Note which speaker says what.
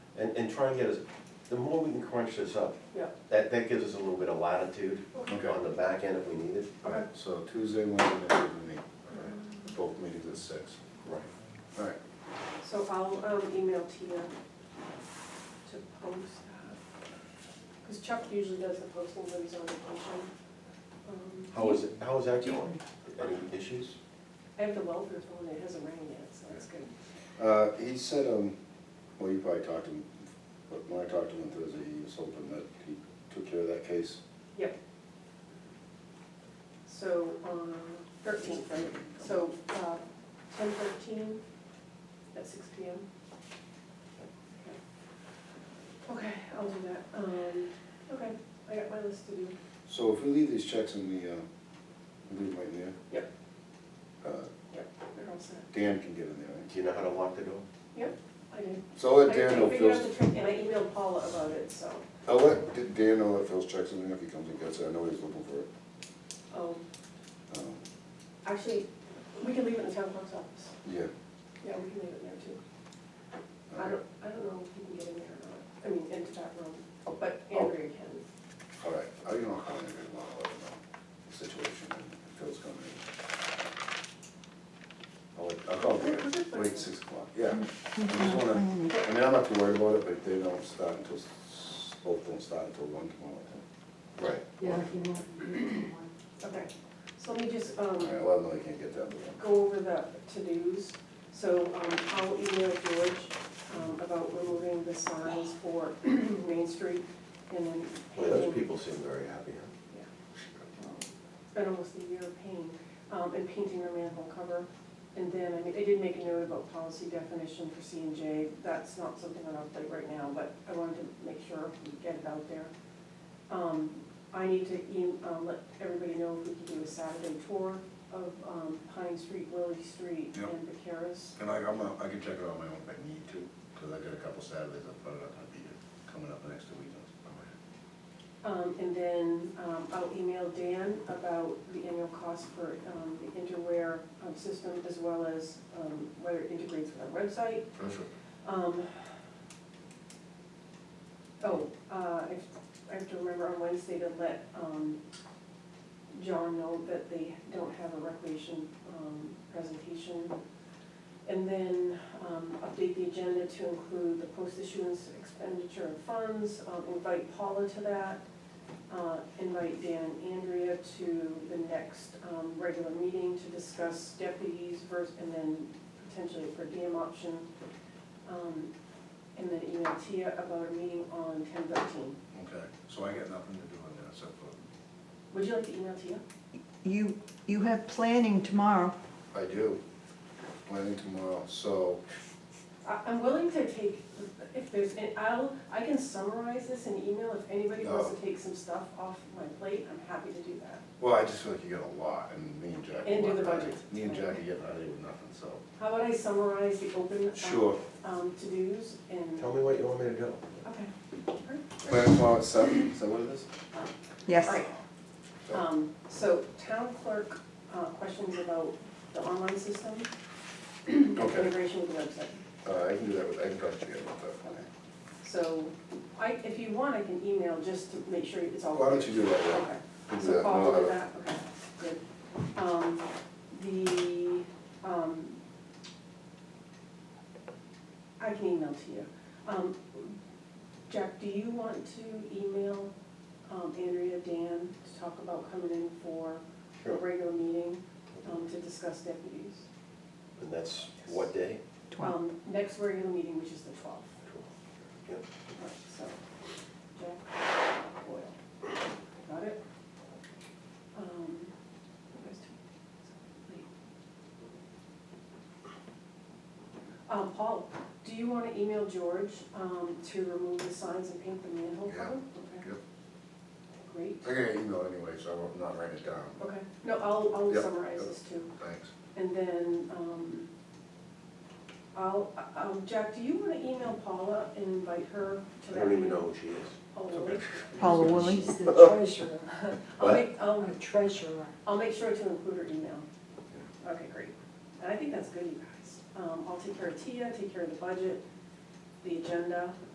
Speaker 1: and, and try and get us, the more we can crunch this up,
Speaker 2: Yeah.
Speaker 1: that, that gives us a little bit of latitude
Speaker 3: Okay.
Speaker 1: on the back end if we need it.
Speaker 3: All right, so Tuesday, Wednesday, we meet, all right, both meetings at six.
Speaker 1: Right.
Speaker 3: All right,
Speaker 2: So I'll um, email Tia to post that. Because Chuck usually does the posting when he's on vacation. Um,
Speaker 1: How is it, how is that going? Any issues?
Speaker 2: I have the welders on, it hasn't rained yet, so that's good.
Speaker 3: Uh, he said, um, well, you probably talked to him, but when I talked to him on Thursday, he was hoping that he took care of that case.
Speaker 2: Yep. So, um, thirteenth, right, so, uh, ten thirteen at six P M. Okay, I'll do that, um, okay, I got my list to do.
Speaker 3: So if we leave these checks in the, uh, we leave them right in there?
Speaker 2: Yep.
Speaker 3: Uh,
Speaker 2: Yep, they're all set.
Speaker 3: Dan can get in there, right?
Speaker 1: Do you know how to lock the door?
Speaker 2: Yep, I did.
Speaker 3: So I'll
Speaker 2: I-
Speaker 3: let Dan know
Speaker 2: I
Speaker 3: if
Speaker 2: figured out
Speaker 3: Phil's,
Speaker 2: the trick, and I emailed Paula about it, so,
Speaker 3: I'll let D- Dan know that Phil's checks in there if he comes and gets it, I know he's looking for it.
Speaker 2: um,
Speaker 3: Um,
Speaker 2: actually, we can leave it in the town clerk's office.
Speaker 3: Yeah,
Speaker 2: Yeah, we can leave it there too. I
Speaker 3: all
Speaker 2: don't, I don't know if you can get in there or not, I mean, into that room, but Andrea can.
Speaker 3: right, I don't know how many we want to let him know the situation, and if Phil's coming in. I'll, let- I'll call Dan, wait, six o'clock, yeah. I just wanna, I mean, I'm not too worried about it, but they don't start until, s- both don't start until one tomorrow, I think.
Speaker 1: Right.
Speaker 4: Yeah, if you want, you can want.
Speaker 2: Okay, so let me just, um,
Speaker 3: All right, well, I know they can't get that, but.
Speaker 2: go over the to-dos. So, um, I'll email George, um, about removing the signs for Main Street and then
Speaker 1: Well, those
Speaker 2: painting-
Speaker 1: people seem very happy, huh?
Speaker 2: Been almost a year of pain, um, and painting our manhole cover. And then, I mean, I did make a note about policy definition for C and J, that's not something on our plate right now, but I wanted to make sure we get it out there. Um, I need to e- um, let everybody know if we can do a Saturday tour of, um, Pine Street, Willie Street,
Speaker 3: Yep.
Speaker 2: and Vicaris.
Speaker 3: And I, I'm, not- I can check it on my own if I need to, because I got a couple Saturdays I'm probably not gonna be here, coming up the next two weekends.
Speaker 2: Um, and then, um, I'll email Dan about the annual cost for, um, the interware, um, system as well as, um, whether it integrates with our website.
Speaker 3: Perfect.
Speaker 2: Um, oh, uh, if, I have to remember on Wednesday to let, um, John know that they don't have a recreation, um, presentation. And then, um, update the agenda to include the post-issuance expenditure of funds, um, invite Paula to that. Uh, invite Dan and Andrea to the next, um, regular meeting to discuss deputies versus, and then potentially for diem option. Um, and then email Tia about a meeting on ten thirteen.
Speaker 3: Okay, so I got nothing to do on that except for.
Speaker 2: Would you like to email Tia?
Speaker 5: You, you have planning tomorrow.
Speaker 3: I do, planning tomorrow, so,
Speaker 2: I, I'm willing to take, if there's, and I'll, I can summarize this in email, if anybody wants
Speaker 3: Oh.
Speaker 2: to take some stuff off my plate, I'm happy to do that.
Speaker 3: well, I just feel like you got a lot, and me and Jackie.
Speaker 2: And do
Speaker 3: went
Speaker 2: the
Speaker 3: out of-
Speaker 2: budget.
Speaker 3: Me and Jackie getting out of here with nothing, so.
Speaker 2: How about I summarize the open, um,
Speaker 3: Sure,
Speaker 2: um, to-dos and,
Speaker 1: Tell me what you want me to do.
Speaker 2: okay,
Speaker 3: planning tomorrow at seven, is that what it is?
Speaker 5: Yes.
Speaker 2: all right. Um, so town clerk, uh, questions about the online system,
Speaker 3: Okay,
Speaker 2: integration with the website.
Speaker 3: uh, I can do that with, I can talk to you about that.
Speaker 2: So, I, if you want, I can email just to make sure it's all.
Speaker 3: Why don't you do that, yeah?
Speaker 2: Okay,
Speaker 3: We'll do
Speaker 2: so
Speaker 3: that.
Speaker 2: Paul
Speaker 3: No,
Speaker 2: did
Speaker 3: I-
Speaker 2: that, okay, good. Um, the, um, I can email to you. Um, Jack, do you want to email, um, Andrea, Dan, to talk about coming in for a
Speaker 1: Sure.
Speaker 2: regular meeting, um, to discuss deputies?
Speaker 1: And that's what day?
Speaker 5: Twelve.
Speaker 2: Um, next regular meeting, which is the twelfth.
Speaker 1: Yep.
Speaker 2: Right, so, Jack Boyle, got it? Um, who goes to- wait. Um, Paul, do you wanna email George, um, to remove the signs and paint the manhole
Speaker 3: Yeah,
Speaker 2: cover? Okay,
Speaker 3: yep.
Speaker 2: Great,
Speaker 3: I got an email anyway, so I won't, not write it down,
Speaker 2: okay, no, I'll, I'll
Speaker 3: Yep,
Speaker 2: summarize
Speaker 3: yep.
Speaker 2: this too.
Speaker 3: thanks.
Speaker 2: And then, um, I'll, um, Jack, do you wanna email Paula and invite her to
Speaker 1: I
Speaker 2: that
Speaker 1: don't even
Speaker 2: meeting?
Speaker 1: know who she is.
Speaker 2: Oh,
Speaker 3: It's okay.
Speaker 2: really?
Speaker 5: Paula Woolley.
Speaker 4: She's the treasurer,
Speaker 2: I'll make, I'll,
Speaker 4: our treasurer.
Speaker 2: I'll make sure to include her email. Okay, great. And I think that's good, you guys. Um, I'll take care of Tia, take care of the budget, the agenda,